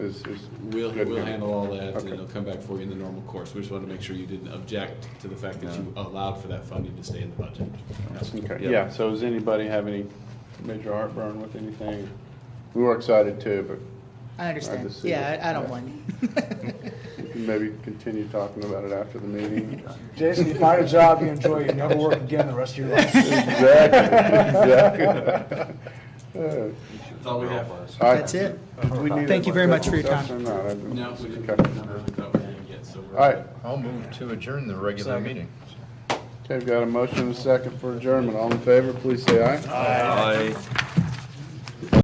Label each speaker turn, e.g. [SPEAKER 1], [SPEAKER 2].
[SPEAKER 1] is, is
[SPEAKER 2] We'll,
[SPEAKER 1] good
[SPEAKER 2] we'll
[SPEAKER 1] news.
[SPEAKER 2] handle all that, and
[SPEAKER 1] Okay.
[SPEAKER 2] it'll come back for you in the normal course. We just wanted to make sure you didn't object to the fact that you allowed for that funding to stay in the budget.
[SPEAKER 1] Okay,
[SPEAKER 3] Yeah.
[SPEAKER 1] yeah, so does anybody have any major heartburn with anything? We were excited too, but
[SPEAKER 4] I
[SPEAKER 1] Hard
[SPEAKER 4] understand.
[SPEAKER 1] to see
[SPEAKER 4] Yeah,
[SPEAKER 1] it.
[SPEAKER 4] I I don't
[SPEAKER 1] Yeah.
[SPEAKER 4] blame you.
[SPEAKER 1] we can maybe continue talking about it after the meeting.
[SPEAKER 5] Jason, you find a job you enjoy, you never work again the rest of your life.
[SPEAKER 1] Exactly, exactly. Uh,
[SPEAKER 2] That's all we have.
[SPEAKER 1] I-
[SPEAKER 4] That's it.
[SPEAKER 1] Did we need
[SPEAKER 5] Thank
[SPEAKER 1] a
[SPEAKER 5] you very much for your
[SPEAKER 1] discussion
[SPEAKER 5] time.
[SPEAKER 1] or not? I didn't-
[SPEAKER 2] No, we didn't,
[SPEAKER 1] Okay.
[SPEAKER 2] no, we thought we didn't yet, so we're.
[SPEAKER 1] All right,
[SPEAKER 3] I'll move to adjourn the regular meeting.
[SPEAKER 1] okay, we've got a motion and a second for adjournment. All in favor, please say aye.
[SPEAKER 3] Aye.